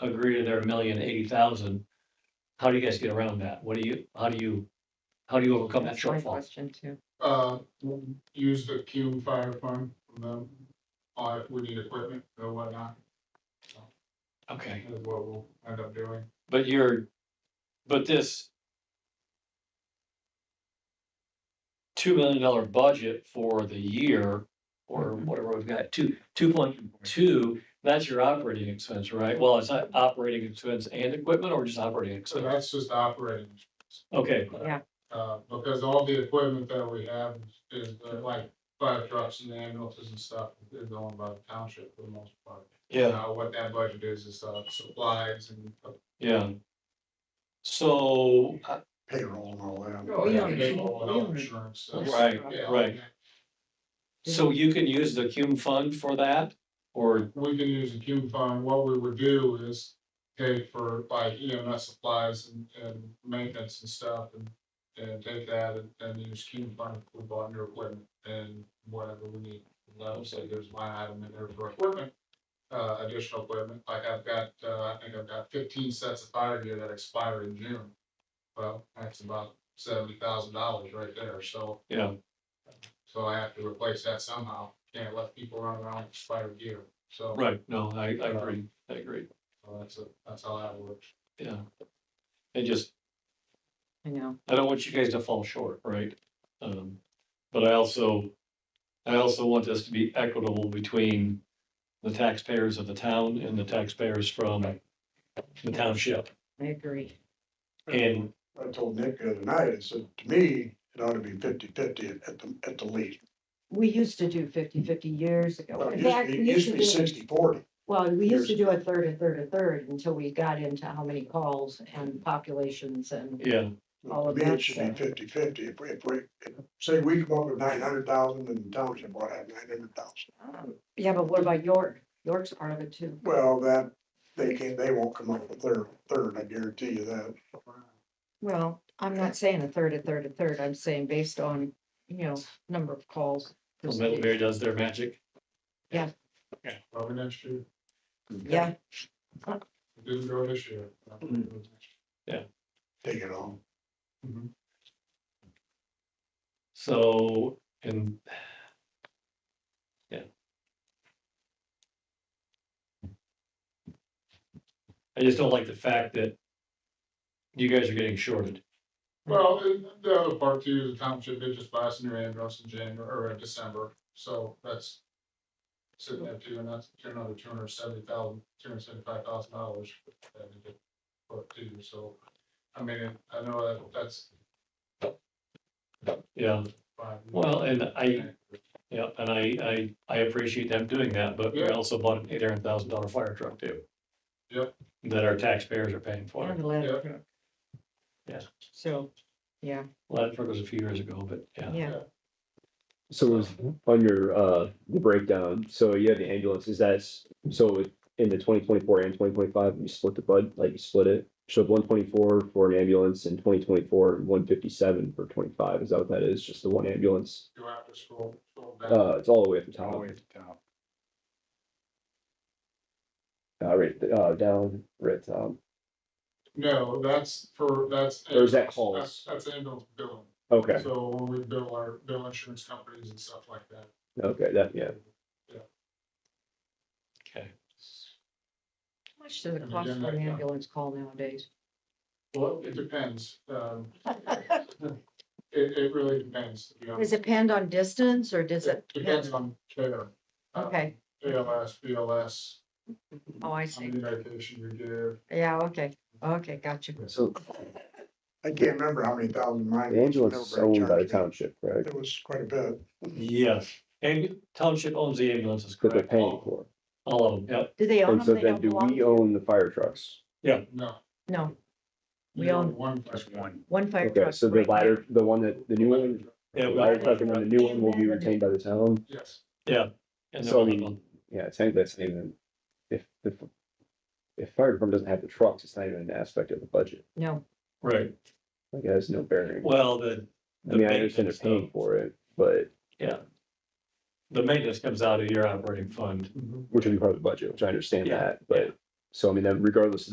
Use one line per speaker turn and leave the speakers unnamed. agree to their million eighty thousand, how do you guys get around that? What do you, how do you, how do you overcome that
That's my
shortfall?
question too.
Uh, we'll use the Q fire fund from them, uh, if we need equipment or whatnot,
Okay,
is what we'll end up doing.
but you're, but this two million dollar budget for the year, or
Mhm.
whatever we've got, two, two point two, that's your operating expense, right? Well, it's not operating expense and equipment, or just operating
So
expense?
that's just operating,
Okay,
uh, because all the equipment that we have is uh, like fire trucks and ambulances and stuff is owned by the township for the most part.
yeah.
Uh, what that budget is, is, uh, supplies and.
Yeah. So, uh,
payroll and all that.
Oh,
We own it.
Payroll and
We
all
own it.
Insurance. that's-
right,
yeah, all
right.
that.
So you can use the cume fund for that or,
We can use a Q fund. What we would do is take for like EMS supplies and, and maintenance and stuff and. And take that and, and use Q fund for buying new equipment and whatever we need. Level, so there's line item in there for equipment. Uh, additional equipment, like I've got, uh, I think I've got fifteen sets of fire gear that expire in June. Well, that's about seventy thousand dollars right there, so.
you know,
So I have to replace that somehow. Can't let people run around with expired gear. So
right, no, I, I agree, I agree,
so that's, a- that's how that works.
yeah. And just,
I know.
I don't want you guys to fall short, right? Um, but I also, I also want this to be equitable between the taxpayers of the town and the taxpayers from the township.
I agree.
And,
I told Nick the other night, I said, to me, it ought to be fifty-fifty at the, at the least.
We used to do 50-50 years ago.
Well, It
In
used to
fact,
be-
we
it used to be
do-
sixty-forty.
Well, we used to do a third, a third, a third until we got into how many calls and populations and
yeah,
All
To
of
me,
that
it should be
stuff.
fifty-fifty. If we, if we, if- say we come up with nine hundred thousand and the township ought to have nine hundred thousand.
Um, Yeah, but what about York? York's part of it too.
Well, that, they can't, they won't come up with their third, I guarantee you that.
Well, I'm not saying a third, a third, a third. I'm saying based on, you know, number of calls.
well, Middlebury does their magic.
Probably next year.
Yeah,
It Didn't grow this year.
Take it on.
So, and. Yeah. I just don't like the fact that. You guys are getting shorted.
Well, and the other part too, the township did just buy some new ambulance in January or in December. So that's sitting at two and that's another two hundred seventy thousand, two hundred seventy-five thousand dollars. that we could Put to, so I mean, I know that that's
Yeah,
fine.
well, and I, yeah, and I, I, I appreciate them doing that, but we
Yeah.
also bought an eight hundred thousand dollar fire truck too.
Yep.
That our taxpayers are paying for.
and a ladder truck.
Yeah.
So, yeah,
Well, that truck was a few years ago, but yeah.
yeah.
So it was on your, uh, the breakdown, so you have the ambulance, is that, s- so in the twenty twenty-four and twenty twenty-five, you split the bud, like you split it? Showed one twenty-four for an ambulance and twenty twenty-four and one fifty-seven for twenty-five, is that what that is, just the one ambulance?
You have to scroll, scroll down.
Uh, it's all the way at the top, uh, right, uh, down, right at the top.
No, that's for, that's.
Or is that
ambulance.
calls?
That's- That's ambulance billing.
okay,
So when we bill our bill insurance companies and stuff like that.
okay, that, yeah.
Okay.
How much does it
And
cost
again,
for an
like, uh,
ambulance call nowadays?
Well, it depends. Um, it, it really depends. to be
Does
honest.
it depend on distance or does it?
Depends on care. uh,
Okay,
ALS, BLS,
oh, I
how
see.
many medication you give.
Yeah, okay, okay, gotcha.
So
I can't remember how many thousand mine.
the
was.
ambulance is owned by the township, right,
It was quite a bit.
Yes, and township owns the ambulances,
that they're
correct?
paying
All
for,
all of them, yep,
Do they own
and Oh, so
them? They
then
don't
do
belong?
we own the fire trucks?
No.
No, We
you
own-
One.
one fire truck.
Okay, so the
right now.
latter, the one that, the new one,
Yeah,
the
we-
ladder truck and then the new one will be retained by the town,
Yes.
and
So,
they're
I mean,
all-
yeah, technically that's not even, if, if. If fire department doesn't have the trucks, it's not even an aspect of the budget,
No,
right,
like it has no bearing,
well, the,
I mean, I
the
understand they're
maintenance,
paying
though.
for it, but,
the maintenance comes out of your operating fund.
Mm-hmm. which would be part of the budget, which I understand
Yeah,
that, but. So I mean, then regardless of